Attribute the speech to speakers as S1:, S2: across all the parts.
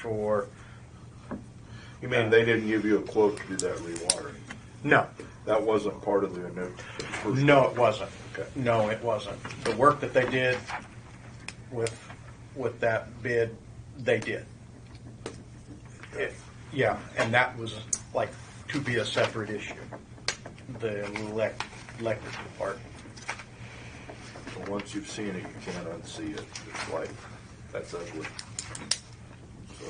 S1: for,
S2: You mean they didn't give you a quote to do that rewatering?
S1: no,
S2: That wasn't part of the initial. first-
S1: no, it wasn't.
S2: Okay.
S1: No, it wasn't. The work that they did with, with that bid, they did. It- Yeah, and that was like to be a separate issue, the elec- electrical part.
S2: And Once you've seen it, you can't unsee it. It's like, that's ugly. So,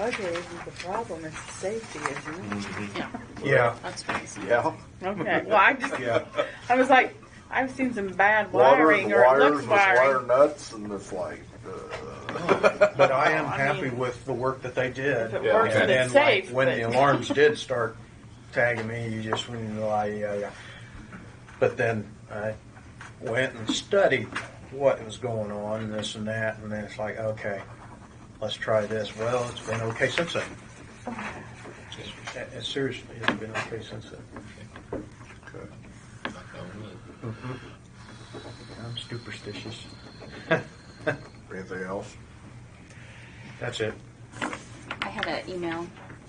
S3: Ugly isn't the problem, it's the safety, isn't it?
S4: Yeah,
S1: Yeah,
S4: that's crazy.
S2: Yeah,
S3: Okay, well, I just,
S1: yeah.
S3: I was like, I've seen some bad
S2: water
S3: wiring
S2: and the
S3: or it
S2: wires
S3: looks
S2: with wire
S3: wiring.
S2: nuts and it's like, uh,
S1: But I am
S3: I
S1: happy
S3: mean-
S1: with the work that they did.
S3: If it
S2: Yeah.
S3: works
S1: And
S3: and
S1: then,
S3: it's
S1: like,
S3: safe,
S1: when
S3: but
S1: the alarms did start tagging me, you just went into like, yeah, yeah. But then I went and studied what was going on, this and that, and then it's like, okay, let's try this. Well, it's been okay since then. It's- it- Seriously, it's been okay since then.
S2: okay. Mm-hmm.
S1: I'm superstitious.
S2: anything else?
S1: That's it.
S4: I had an email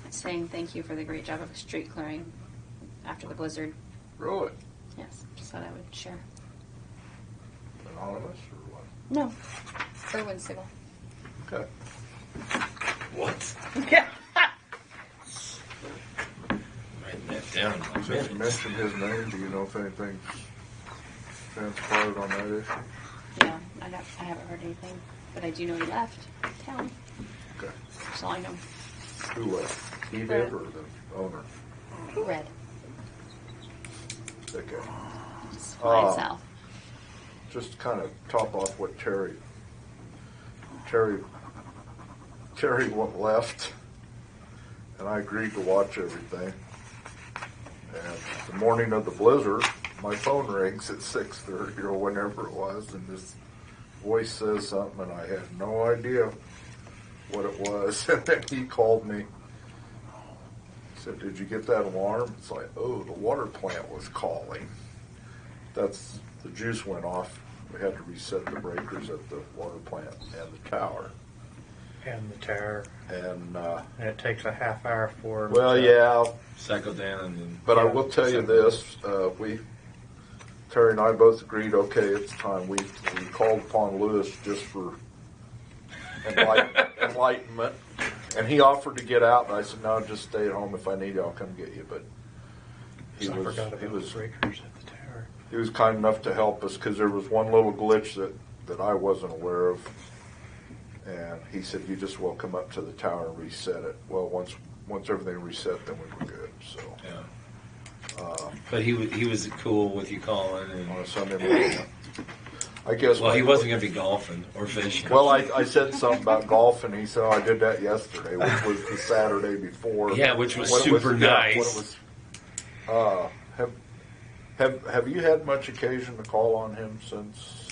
S4: saying thank you for the great job of street clearing after the blizzard.
S2: Really?
S4: Yes, just thought I would share.
S2: Anonymous or what?
S4: No, Irwin Sigal.
S2: Okay.
S5: What?
S3: yeah.
S5: Writing that down. in my
S2: Since you
S5: minutes.
S2: mentioned his name, do you know if anything transpired on that issue?
S4: Yeah, I, don't, I haven't heard anything, but I do know he left town.
S2: Okay.
S4: That's all I know.
S2: Who left? He
S4: did.
S2: Or the owner?
S4: Red.
S2: Okay.
S4: Just flying
S2: Oh.
S4: south.
S2: just to kind of top off what Terry, Terry, Terry went left, and I agreed to watch everything. And the morning of the blizzard, my phone rings at six thirty or whenever it was, and this voice says something, and I had no idea what it was. And then he called me. He said, "Did you get that alarm?" It's like, "Oh, the water plant was calling." that's, the juice went off. We had to reset the breakers at the water plant and the tower.
S1: And the terror.
S2: And, uh,
S1: And it takes a half hour for.
S2: well, yeah,
S5: Cycle down and then.
S2: but I will tell you this, uh, we, Terry and I both agreed, okay, it's time. We, we called upon Lewis just for enlighten- enlightenment. And he offered to get out, and I said, no, just stay at home. If I need you, I'll come get you. But he
S1: I
S2: was,
S1: forgot
S2: he
S1: about the
S2: was
S1: breakers at the tower.
S2: he was kind enough to help us because there was one little glitch that, that I wasn't aware of. And he said, you just will come up to the tower and reset it. Well, once, once everything reset, then we were good, so.
S5: Yeah. But he was, he was cool with you calling and.
S2: On a Sunday morning, I guess.
S5: Well, he wasn't going to be golfing or fishing.
S2: Well, I, I said something about golf and he said, oh, I did that yesterday, which was the Saturday before.
S5: Yeah, which was
S2: When it
S5: super
S2: yeah, when it
S5: nice.
S2: was- Uh, have, have, have you had much occasion to call on him since?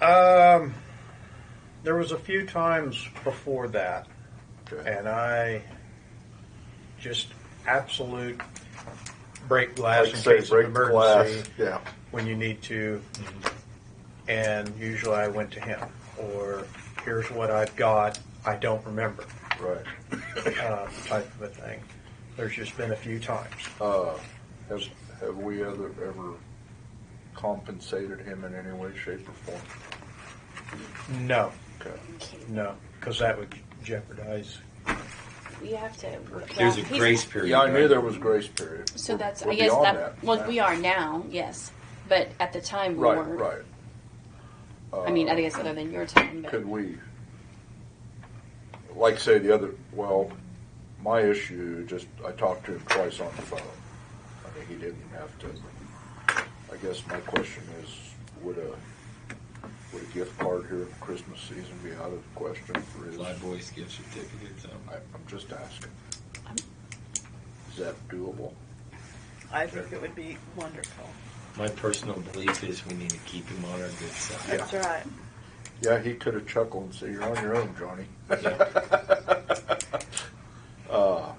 S1: Um, there was a few times before that,
S2: Okay.
S1: and I just absolute break glass
S2: Like
S1: in
S2: say,
S1: case of
S2: break
S1: emergency
S2: glass, Yeah.
S1: when you need to. And usually I went to him, or here's what I've got. I don't remember
S2: Right.
S1: uh, type of a thing. There's just been a few times.
S2: Uh, has, have we ever, ever compensated him in any way, shape, or form?
S1: No,
S2: Okay.
S1: no, because that would jeopardize.
S4: You have to.
S5: There's a grace period.
S2: Yeah, I knew
S5: right?
S2: there was grace period.
S4: So
S2: We're-
S4: that's,
S2: we're
S4: I guess
S2: beyond
S4: that, well, we are now, yes. But at the time, we
S2: Right,
S4: weren't.
S2: right. Uh,
S4: I mean, I guess other than your time, but.
S2: Could we, like, say the other? Well, my issue just I talked to him twice on the phone. I mean, he didn't have to. I guess my question is, would a would a gift card here in the Christmas season be out of the question for his?
S5: Live voice gift certificate. So.
S2: I, I'm just asking.
S4: Um.
S2: Is that doable?
S3: I think it would be wonderful.
S5: My personal belief is we need to keep him on our good side.
S3: That's right.
S2: Yeah, he could have chuckled and said, "You're on your own, Johnny." uh,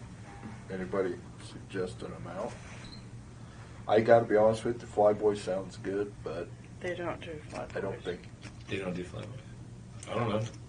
S2: anybody suggest an amount? I got to be honest with you, Flyboy sounds good, but
S3: They don't do flood.
S2: I don't think
S5: They don't do flyboys. I don't know.